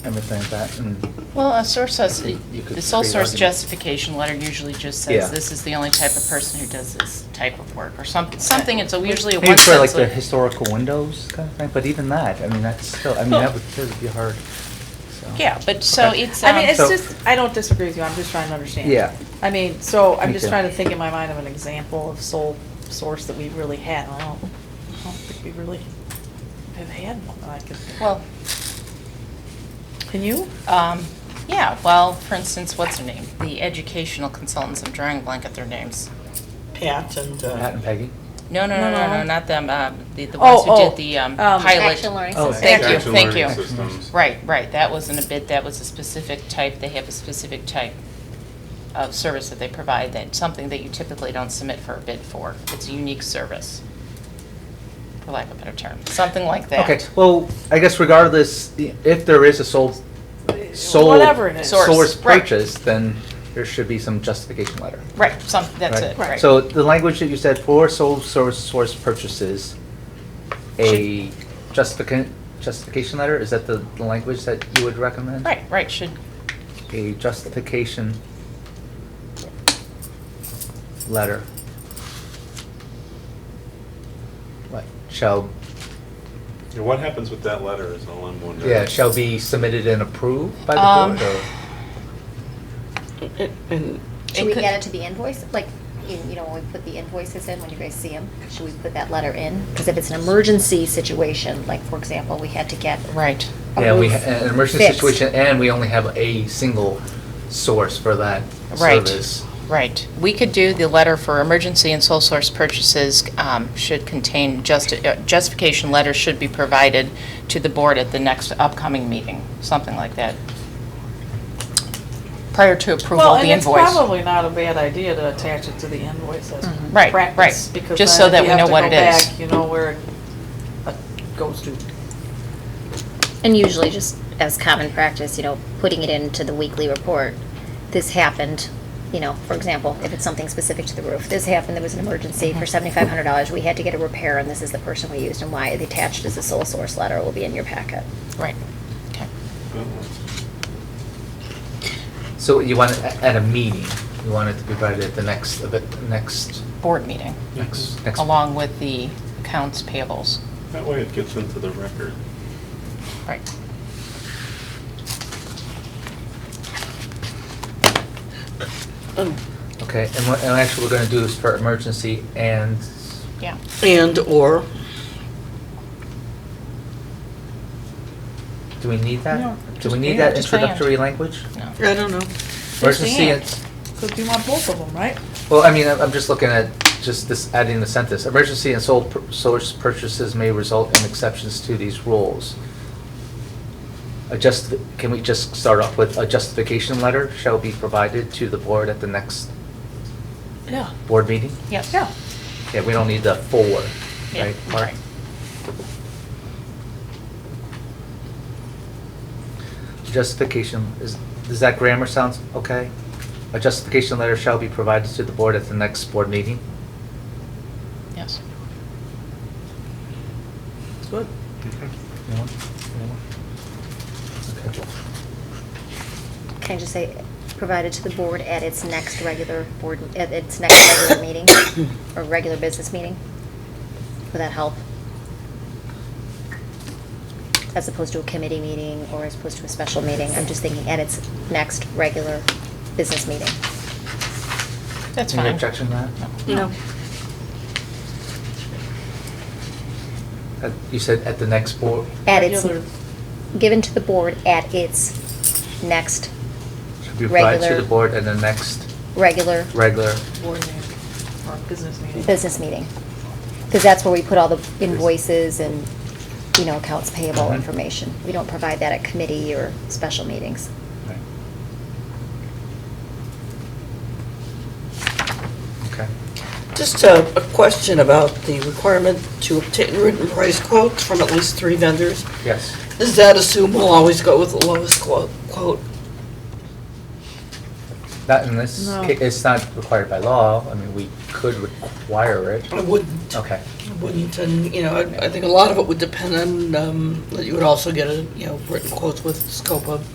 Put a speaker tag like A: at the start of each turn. A: everything like that, and
B: Well, a source says,
A: You could
B: the sole
A: create
B: source
A: arguments.
B: justification letter usually just
A: Yeah.
B: says, this is the only type of person who does this type of work, or something, something, it's a- usually a one
A: maybe for like
B: sentence.
A: the historical windows kind of thing, but even that, I mean, that's still, I mean, that would still be hard, so.
B: Yeah, but so
A: Okay.
B: it's,
C: I mean,
B: um,
C: it's
A: So-
C: just, I don't disagree with you, I'm just trying to understand.
A: Yeah.
C: I mean, so I'm
A: Me
C: just
A: too.
C: trying to think in my mind of an example of sole source that we've really had. I don't, I don't think we really have had one that I could.
B: well,
C: Can you?
B: um, yeah, well, for instance, what's her name? The educational consultants, I'm drawing a blank at their names.
D: Pat and,
A: Pat
D: uh,
A: and Peggy?
B: No, no, no, no,
C: No,
B: no,
C: no.
B: not them, um, the, the
C: Oh,
B: ones who
C: oh,
B: did the, um,
C: um,
B: pilot.
E: Action learning
A: Oh,
E: system.
B: Thank you,
F: Action
B: thank
F: learning
B: you.
F: systems.
B: Right, right, that wasn't a bid, that was a specific type, they have a specific type of service that they provide, that, something that you typically don't submit for a bid for. It's a unique service, for lack of a better term, something like that.
A: Okay, well, I guess regardless, i- if there is a sole, sole.
C: Whatever it is.
B: Source,
A: Source
B: right.
A: purchase, then there should be some justification letter.
B: Right, some, that's it,
C: Right.
B: right.
A: So the language that you said, for sole source, source purchases, a justification, justification letter, is that the, the language that you would recommend?
B: Right, right, should,
A: A justification letter. What, shall,
F: Yeah, What happens with that letter is all I'm wondering.
A: yeah, shall be submitted and approved by
B: Um,
A: the board, or?
D: and
B: It
E: Should we
B: could-
E: add it to the invoice? Like, you you know, when we put the invoices in, when you guys see them, should we put that letter in? Because if it's an emergency situation, like, for example, we had to get
B: right.
E: a
A: Yeah, we,
E: roof
A: ha- an emergency
E: fixed.
A: situation, and we only have a single source for that
B: Right.
A: service.
B: Right. We could do the letter for emergency and sole source purchases um, should contain, justi- uh, justification letter should be provided to the board at the next upcoming meeting, something like that. Prior to approval
C: Well,
B: of
C: and
B: the
C: it's
B: invoice.
C: probably not a bad idea to attach it to the invoice as
B: Mm-hmm. Right, right.
C: practice, because
B: Just
C: then
B: so that
C: if
B: we
C: you have
B: know
C: to
B: what
C: go
B: it is.
C: back, You know where it uh, goes to.
E: And usually, just as common practice, you know, putting it into the weekly report, this happened, you know, for example, if it's something specific to the roof, this happened, there was an emergency for seventy-five hundred dollars, we had to get a repair, and this is the person we used, and why the attached as a sole source letter will be in your packet.
B: Right. Okay.
A: So you want, it a- at a meeting, you want it to be provided at the next, of it- next,
B: Board meeting,
A: next, next.
B: along with the accounts payables.
F: That way it gets into the record.
B: Right.
A: Okay, and what, and actually, we're gonna do this for emergency and,
B: Yeah.
D: and/or,
A: do we need that?
C: No,
A: Do we
B: just
A: need
B: and,
A: that
B: just and.
A: introductory language?
B: No.
D: I don't know.
A: Emergency
C: and.
A: and,
C: Because you want both of them, right?
A: well, I mean, I'm I'm just looking at just this, adding the sentence. Emergency and sole pur- source purchases may result in exceptions to these rules. A just, can we just start off with a justification letter shall be provided to the board at the next
C: Yeah.
A: board meeting?
B: Yes.
C: Yeah.
A: Yeah, we don't need the for,
B: Yeah,
A: right, Mark?
B: right.
A: Justification, is, does that grammar sounds okay? A justification letter shall be provided to the board at the next board meeting?
B: Yes.
C: It's good.
A: Anyone? Anyone? Okay.
E: Can I just say, provided to the board at its next regular board, at its next regular meeting, or regular business meeting? Would that help? As opposed to a committee meeting, or as opposed to a special meeting, I'm just thinking at its next regular business meeting.
B: That's fine.
A: Any objection to that?
D: No.
A: Uh, You said at the next board,
E: At its,
C: Regular.
E: given to the board at its next
A: should be provided to
E: Regular.
A: the board at the next
E: regular
A: regular,
C: Board meeting, or business meeting.
E: business meeting. Because that's where we put all the invoices and, you know, accounts payable
A: Mhm.
E: information. We don't provide that at committee or special meetings.
A: Right. Okay.
D: Just a, a question about the requirement to obtain written price quotes from at least three vendors.
A: Yes.
D: Does that assume we'll always go with the lowest quote? quote?
A: Not in this,
C: No.
A: ca- it's not required by law, I mean, we could require it.
D: I wouldn't.
A: Okay,
D: I Wouldn't, and, you know, I, I think a lot of it would depend on, um, that you would also get a, you know, written quotes with scope of